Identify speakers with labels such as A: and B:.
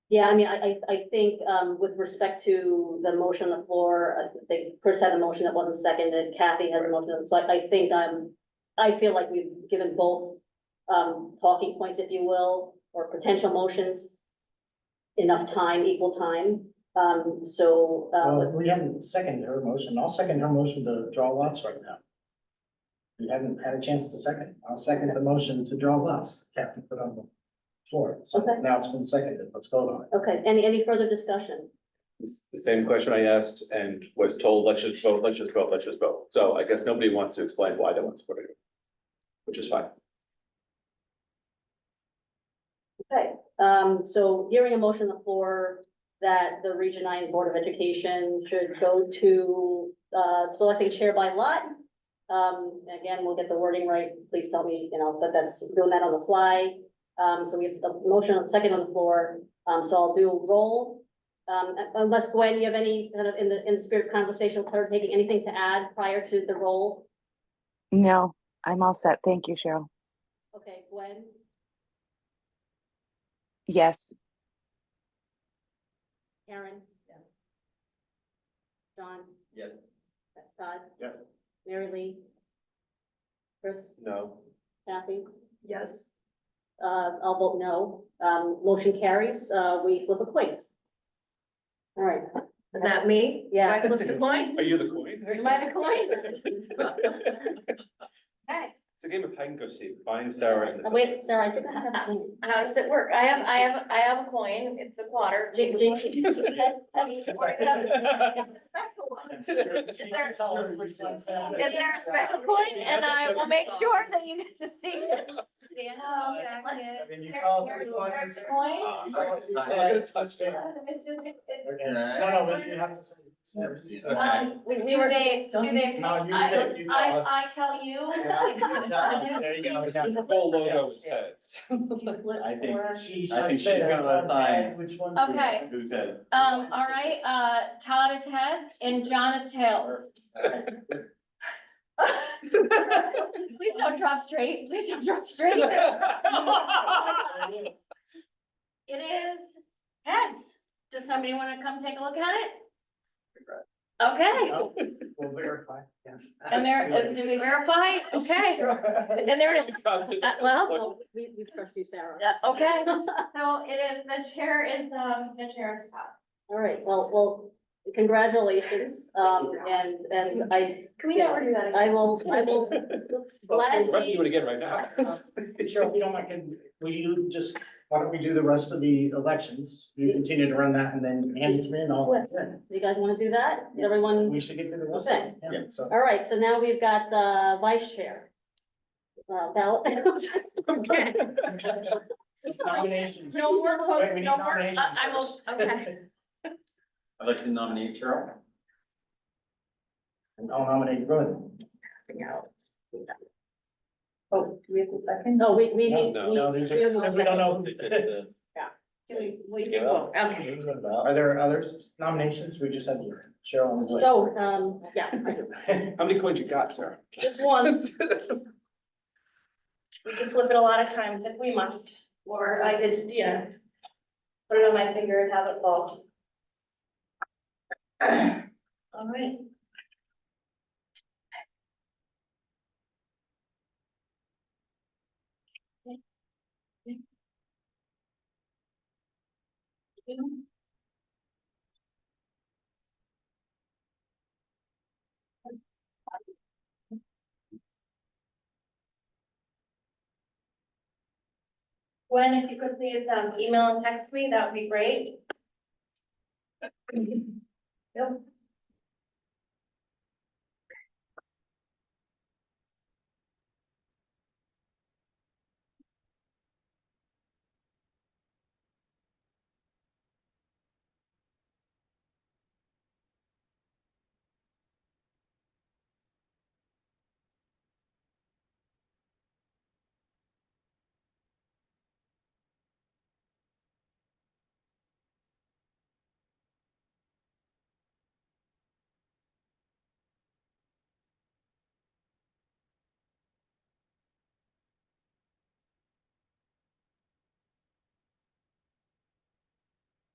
A: Yeah, I mean, I, I, I think, um, with respect to the motion on the floor, I think Chris had a motion that wasn't seconded, Kathy has a motion, so I, I think I'm, I feel like we've given both, um, talking points, if you will, or potential motions enough time, equal time, um, so,
B: Well,
A: uh,
B: we haven't seconded her motion. I'll second her motion to draw lots right now. We haven't had a chance to second. I'll second the motion to draw lots, Captain put on the floor. So
A: Okay.
B: now it's been seconded. Let's vote on it.
A: okay, any, any further discussion?
C: It's the same question I asked and was told, let's just vote, let's just vote, let's just vote. So I guess nobody wants to explain why they want to support it. Which is fine.
A: Okay, um, so hearing a motion on the floor that the Region Nine Board of Education should go to, uh, selecting chair by lot. Um, again, we'll get the wording right, please tell me, you know, that that's doing that on the fly. Um, so we have a motion, second on the floor, um, so I'll do a roll. Um, unless Gwen, you have any, kind of in the, in the spirit of conversational turn, taking anything to add prior to the roll?
D: No, I'm all set. Thank you, Cheryl.
A: Okay, Gwen,
D: Yes,
A: Karen? John?
C: Yes.
A: Todd?
B: Yes.
A: Mary Lee? Chris?
C: No.
A: Kathy?
E: Yes.
A: Uh, I'll vote no. Um, motion carries. Uh, we flip a coin. All right.
E: Is that me?
A: Yeah.
E: Am I the coin?
C: Are you the coin?
E: Am I the coin? Hey,
C: It's a game of hide and go seek. Find Sarah. and-
A: Uh, Wait, Sarah, I think I have a coin.
F: How does it work? I have, I have, I have a coin, it's a quarter.
A: Jing, jing. Is
F: Special one. Is there a special coin? And I will make sure that you get to see it.
E: Stand up, and I
B: I mean, you
E: can-
B: call for
E: Here's
B: the
E: your
B: coin.
E: first coin.
B: You tell us who's
C: I'm
B: right.
C: gonna touch it.
F: It's just- it's-
B: Okay. No, no, but you have to say.
F: Um,
A: We-
F: do
A: we were-
F: they, do they?
B: No, you
F: I-
B: did, you tell
F: I,
B: us.
F: I tell you.
B: Yeah, There you go.
C: It's just the whole logo is heads.
G: I think-
B: She's.
G: I think she's gonna find-
B: Which one's?
F: Okay.
G: Who's that?
F: Um, all right, uh, Todd is heads and John is tails. Please don't drop straight, please don't drop straight. It is heads. Does somebody want to come take a look at it? Okay,
B: No, We'll verify, yes.
F: and there, uh, did we verify? Okay, and there it is. Uh, well,
A: Oh, We, we trust you, Sarah.
F: Yeah, okay.
E: So it is, the chair is, um, the chair is top.
A: All right, well, well, congratulations. Um, and, and I,
E: Can
A: we not
E: do that?
A: I will, I will
C: We're doing it
A: gladly.
C: again right now.
B: Sure, Uh, we don't like, it. will you just, why don't we do the rest of the elections? You continue to run that and then hand it to me and I'll,
A: You guys want to do that? Everyone?
B: we should get to the rest of it. Yeah, so.
A: All right, so now we've got the vice chair. Uh, ballot.
B: Nominations.
F: No more,
B: Wait, we
F: vote,
B: need
F: no more.
B: nominations
F: I I will,
B: first.
F: okay.
G: I'd like to nominate Cheryl.
B: And I'll nominate Gwen.
E: Oh, do we have a second?
A: No, we, we
B: No,
A: need.
C: no,
A: we-
B: No, these
A: we
B: are,
A: don't know
B: because we don't know.
F: Do we, we do
G: Yeah.
F: vote, okay.
B: Are there others nominations? We just had Cheryl on the list.
A: So, um, yeah, I do.
C: How many coins you got, Sarah?
F: Just one, we can flip it a lot of times if we must, or I could, yeah. Put it on my finger and have it fall.
E: All right.
F: Gwen, if you could please, um, email and text me, that would be great. Yep.